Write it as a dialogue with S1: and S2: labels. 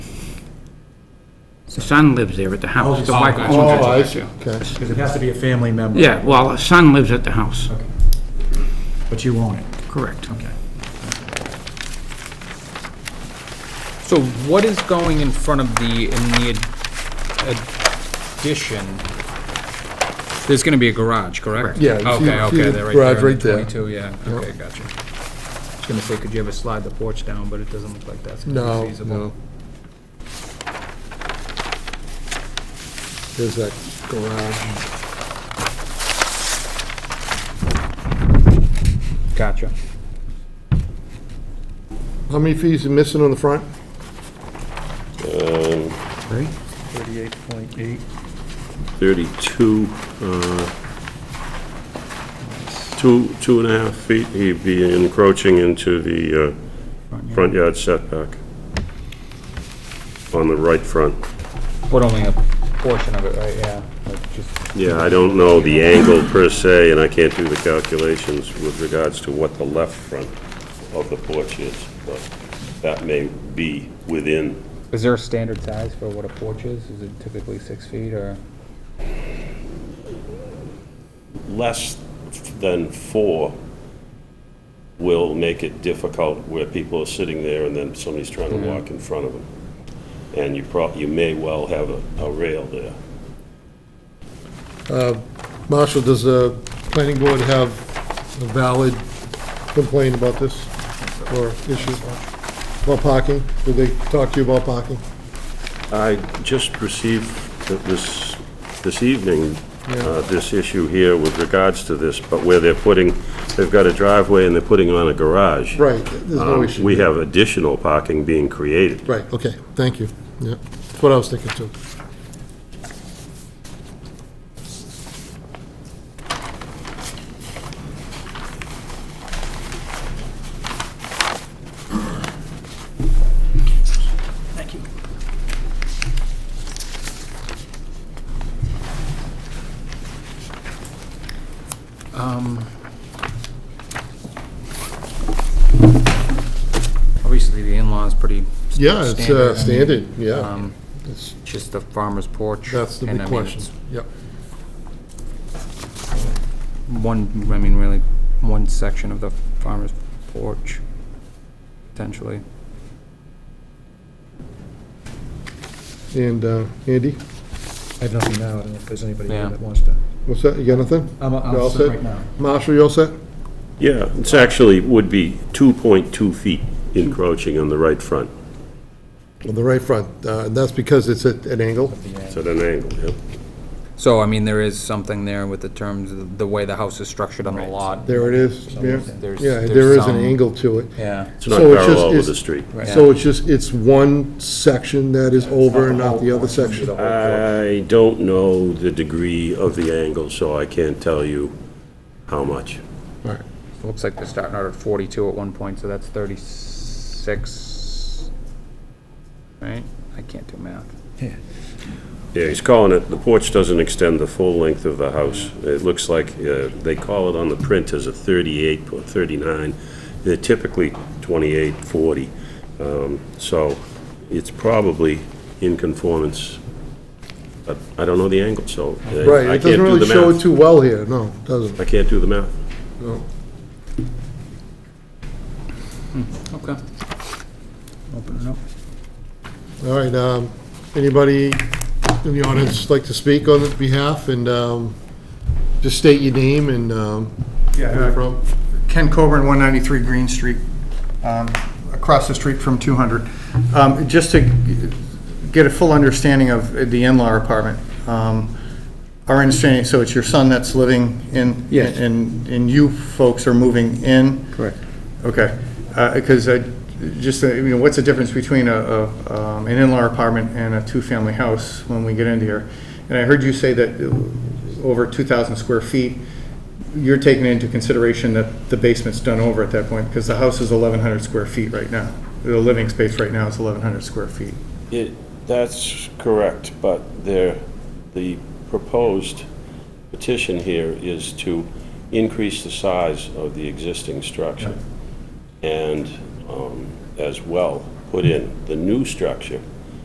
S1: The son lives there at the house. The
S2: Oh,
S1: wife
S2: gotcha.
S1: owns it.
S3: Oh, I see, okay.
S2: Because it has to be a family member.
S1: Yeah, well, the son lives at the house,
S2: Okay. But you own it,
S1: correct.
S2: okay.
S4: So what is going in front of the, in the ad- addition? There's gonna be a garage, correct?
S3: Yeah, you see-
S4: Okay,
S3: see the
S4: okay, they're right there.
S3: garage
S4: in the
S3: right there.
S4: Twenty-two, yeah, okay, gotcha. I was gonna say, could you ever slide the porch down, but it doesn't look like that's gonna
S3: No,
S4: be feasible.
S3: no. There's that garage.
S4: Gotcha.
S3: How many fees are missing on the front?
S1: Right?
S2: 38.8.
S5: 32, uh, two, two and a half feet, he'd be encroaching into the uh, front yard setback on the right front.
S4: But only a portion of it, right, yeah, like just,
S5: Yeah, I don't know the angle per se, and I can't do the calculations with regards to what the left front of the porch is, but that may be within,
S4: is there a standard size for what a porch is? Is it typically six feet or?
S5: less than four will make it difficult where people are sitting there and then somebody's trying to walk in front of them. And you prob, you may well have a, a rail there.
S3: Marshall, does the planning board have a valid complaint about this or issue? About parking? Did they talk to you about parking?
S5: I just received th- this, this evening, uh, this issue here with regards to this, but where they're putting, they've got a driveway and they're putting on a garage.
S3: Right, there's no
S5: Um,
S3: issue.
S5: We have additional parking being created.
S3: Right, okay, thank you. Yeah, that's what I was thinking too.
S4: Um, Obviously, the in-law is pretty s-
S3: Yeah, it's uh,
S4: standard.
S3: standard, yeah.
S4: Um,
S3: It's-
S4: Just the farmer's porch.
S3: That's the
S4: and
S3: big
S4: I mean,
S3: question.
S4: it's
S3: Yep,
S4: One, I mean, really, one section of the farmer's porch, potentially.
S3: and uh, Andy,
S2: I have nothing now, I don't know if there's anybody
S4: Yeah.
S2: here that wants to.
S3: what's that, you got nothing?
S2: I'm,
S3: You all
S2: I'm
S3: set?
S2: set right now.
S3: Marshall, you all set?
S5: Yeah, it's actually, would be 2.2 feet encroaching on the right front.
S3: On the right front, uh, and that's because it's at an angle?
S5: It's at an angle, yep.
S4: So, I mean, there is something there with the terms, of the way the house is structured on the lot.
S3: There it is, yeah,
S4: There's-
S3: yeah,
S4: there's
S3: there is an
S4: some-
S3: angle to it.
S4: Yeah.
S5: It's not
S3: So it's just-
S5: parallel with
S3: it's-
S5: the street.
S3: So it's just, it's one section that is over and not the other section?
S5: I don't know the degree of the angle, so I can't tell you how much.
S4: Looks like they're starting out at 42 at one point, so that's 36, right? I can't do math.
S5: Yeah, he's calling it, the porch doesn't extend the full length of the house. It looks like, uh, they call it on the print as a 38 or 39. They're typically 28, 40. Um, So it's probably in conformance, but I don't know the angle, so uh,
S3: Right,
S5: I
S3: it
S5: can't
S3: doesn't
S5: do
S3: really
S5: the
S3: show it
S5: math.
S3: too well here, no, it doesn't,
S5: I can't do the math.
S3: no.
S4: Okay. Open it up.
S3: All right, um, anybody in the audience like to speak on this behalf, and um, just state your name and um, where you're
S6: Yeah,
S3: from?
S6: uh, Ken Coburn, 193 Green Street, um, across the street from 200. Um, Just to get a full understanding of the in-law apartment, um, our understanding, so it's your son that's living in?
S2: Yes.
S6: And, and you folks are moving in?
S2: Correct.
S6: Okay, because I, just, uh, you know, what's the difference between a, a, um, an in-law apartment and a two-family house when we get into here? And I heard you say that uh, over 2,000 square feet, you're taking into consideration that the basement's done over at that point, because the house is 1,100 square feet right now. The living space right now is 1,100 square feet.
S5: It, that's correct, but there, the proposed petition here is to increase the size of the existing structure and um, as well, put in the new structure